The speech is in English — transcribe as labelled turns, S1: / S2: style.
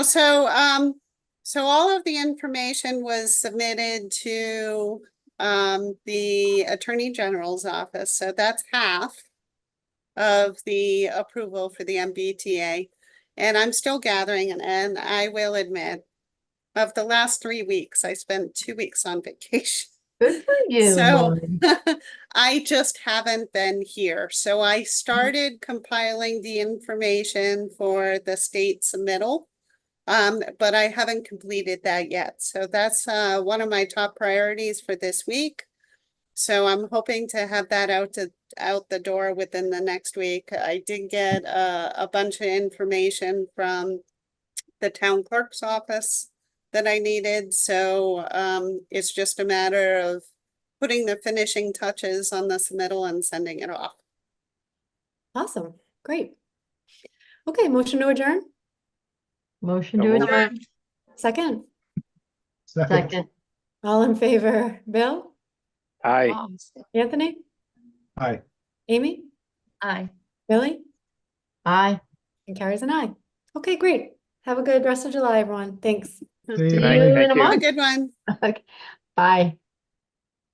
S1: So, um, so all of the information was submitted to, um, the Attorney General's office, so that's half of the approval for the MBTA. And I'm still gathering, and, and I will admit, of the last three weeks, I spent two weeks on vacation.
S2: Good for you.
S1: So-
S2: Lauren.
S1: I just haven't been here, so I started compiling the information for the state submittal. Um, but I haven't completed that yet, so that's uh one of my top priorities for this week. So I'm hoping to have that out to, out the door within the next week. I did get uh a bunch of information from the town clerk's office that I needed, so um it's just a matter of putting the finishing touches on this middle and sending it off.
S2: Awesome. Great. Okay, motion to adjourn.
S3: Motion
S4: So
S3: to
S4: moved.
S3: adjourn.
S2: Second.
S5: Second.
S3: Second.
S2: All in favor? Bill?
S4: Aye.
S2: Anthony?
S5: Aye.
S2: Amy?
S3: Aye.
S2: Billy?
S3: Aye.
S2: And Carrie's an aye. Okay, great. Have a good rest of July, everyone. Thanks.
S3: See you
S4: night.
S3: in
S4: Thank
S3: a
S4: you.
S1: Have a
S3: month.
S1: good one.
S3: Okay. Bye.